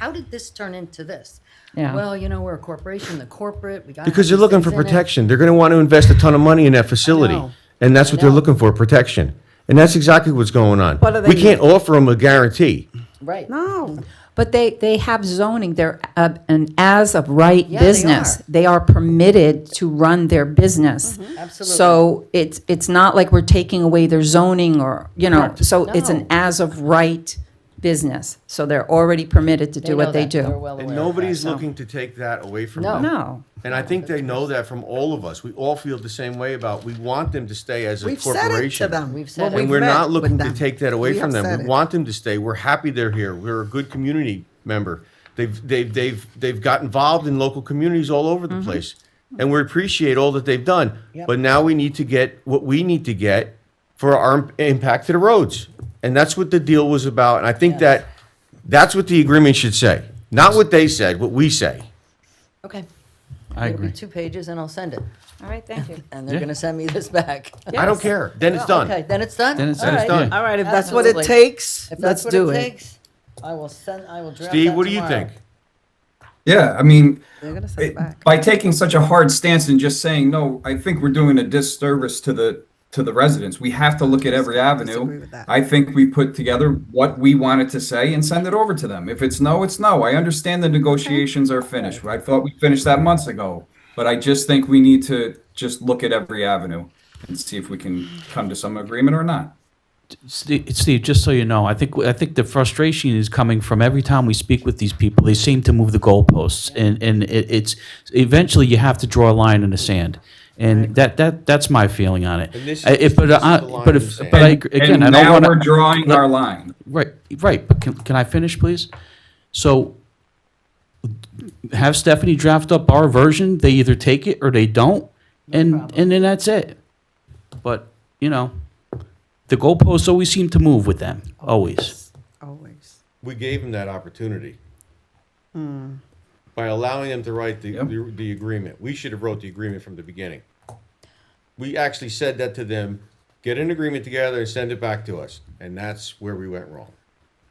how did this turn into this? Yeah. Well, you know, we're a corporation, the corporate, we got. Because they're looking for protection. They're going to want to invest a ton of money in that facility. know. And that's what I they're know. looking for, protection. And that's exactly what's going on. What do they We can't offer them a guarantee. Right. No. But they, they have zoning, they're uh, an as-of-right Yeah, they business. are. Mm-hmm. They are permitted to run their business. Absolutely. So it's, it's not like we're taking away their zoning or, you know, so it's No. an as-of-right business. So they're already permitted to do know what they that. They're do. well And aware of nobody's that. looking to take that away from No. them. No. And I think they know that from all of us. We all feel the same way about, we want them to stay as a We've said it to corporation. them. We've said When it. And we've we're met not with looking to them. take that away We from have them. said We it. want them to stay. We're happy they're here. We're a good community member. They've, they've, they've, they've got involved in local communities all over Mm-hmm. the place. And we appreciate all that they've done. But now we need to get what we need to get for our im- impact to the roads. And that's what the deal was about. And I think that, that's what the agreement should say. Not what they said, what we say. Okay. I It'll be agree. two pages and I'll send it. All right, thank you. And they're going to send me this back. I don't care. Then Oh, it's done. Okay, then it's done? Then it's- All then it's right. done. All right, if that's what it Absolutely. takes, If let's that's what it do it. takes, I will send, I will draft Steve, that what do you tomorrow. think? Yeah, I mean, They're gonna send it back. by taking such a hard stance and just saying no, I think we're doing a disservice to the to the residents. We have to look at every disagree avenue. with that. I think we put together what we wanted to say and send it over to them. If it's no, it's no. I understand the negotiations are finished. I thought we finished that months ago, but I just think we need to just look at every avenue and see if we can come to some agreement or not. Steve, Steve, just so you know, I think, I think the frustration is coming from every time we speak with these people, they seem to move the goalposts. And, and it, it's, eventually you have to draw a line in the sand. And that, that, that's my feeling on it. And this is- I- If, but this is I, the line but in the if, sand. but I, And- agree- again, I and don't now want we're drawing our line. Right, right, but can, can I finish, please? So have Stephanie draft up our version, they either take it or they don't, and, and then that's it. But, you know, the goalposts always seem to move with them, always. Always. we gave them that opportunity by allowing them to write the, Yep. the, the agreement. We should have wrote the agreement from the beginning. We actually said that to them, get an agreement together and send it back to us. And that's where we went wrong.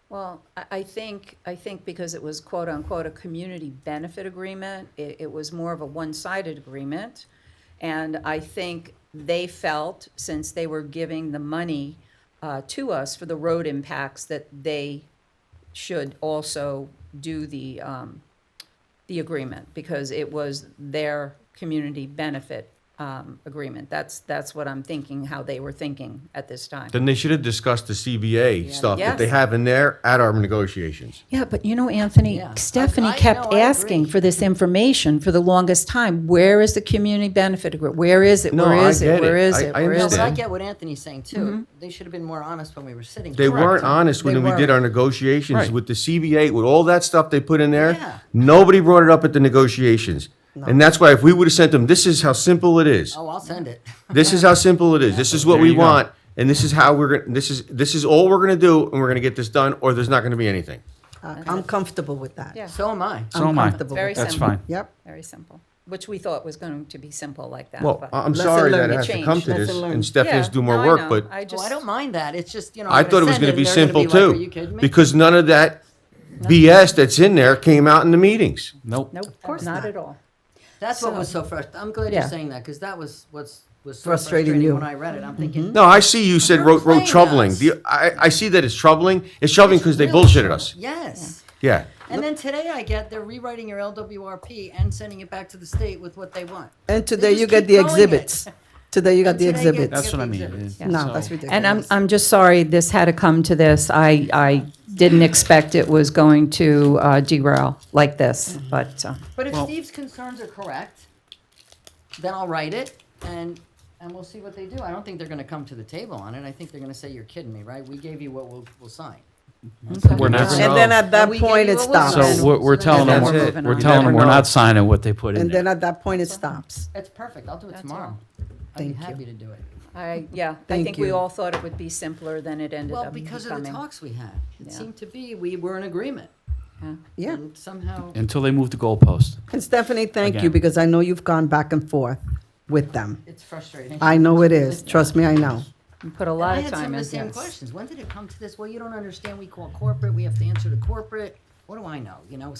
Well, I, I think, I think because it was quote-unquote a community benefit agreement, it, it was more of a one-sided agreement. And I think they felt, since they were giving the money uh, to us for the road impacts, that they should also do the, um, the agreement, because it was their community benefit um, agreement. That's, that's what I'm thinking, how they were thinking at this time. Then they should have discussed the CBA stuff that they Yes. have in there at our negotiations. Yeah, but you know, Anthony, Yeah. I- Stephanie I kept know, I asking agree. for this information for the longest time. Where is the community benefit agreement? Where is it? No, Where I is get it? Where it. is I- it? I Where No, is but I it? understand. get what Anthony saying Mm-hmm. too. They should have been more honest when we were sitting. They here. weren't honest when They we did weren't. our negotiations Right. with the CBA, with all that stuff they put in there. Yeah. Nobody brought it up at the negotiations. And that's why if we would have sent them, this is how simple it is. Oh, I'll send it. This is how simple it is. This is what There we you go. want, and this is how we're gonna. This is this is all we're gonna do, and we're gonna get this done, or there's not gonna be anything. I- I'm comfortable with that. Yeah. So am I. Oh, So am I. comfortable Very with that. That's simple. fine. Yep. Very simple, which we thought was going to be simple like that. Well, but- I- I'm Lesson sorry that learned. it has to Change. come to this, Lesson learned. and Stephanie has Yeah, to do no, more I work, know. but I Oh, just, I don't mind that. It's just, you know. I thought it was send gonna be and they're simple gonna be like, Are too, you kidding me? because none of that BS that's in there came out in the meetings. Nope. nope, course not not. at all. That's what was so frustrating. I'm glad you're Yeah. saying that because that was what's was so Frustrating frustrating you. Mm-hmm. when I read it. I'm thinking, No, I see you said You're wrote wrote playing troubling. us. The- I I see that it's troubling. It's troubling because they Really? bullshitted us. Yes. Yeah. And then today I get they're rewriting your LWRP and sending it back to the state with what they want. And They today just you keep get the going it. exhibits. Today you got Today the you get- exhibits. That's what I mean. Exhibits. No, that's So- ridiculous. And I'm, I'm just sorry this had to come to this. I, I didn't expect it was going to uh, derail like this, but, uh, But if Steve's concerns are correct, then I'll write it and and we'll see what they do. I don't think they're going to come to the table on it. I think they're going to say you're kidding me, right? We gave you what we'll, we'll sign. We're not- Mm-hmm. And then at that we gave point, you it a whistle. stops. So we're, we're So telling them, that's we're it. we're You telling them never we're know. not signing what they put in And then there. at that point, it stops. That's perfect. I'll do it tomorrow. I'd be Thank you. happy to do it. I, yeah, I Thank think we you. all thought it would be simpler than it ended Well, up because of the becoming. talks we had, it Yeah. seemed to be we were in agreement. Yeah. Yeah. And somehow, Until they move the goalpost. And Stephanie, thank you, Again. because I know you've gone back and forth with them. it's frustrating. I know it is. Trust me, I know. We Put a And lot I of had time some in of the this. same questions. When did it come to this? Well, you don't understand. We call corporate. We have to answer to corporate. what do I know, you know?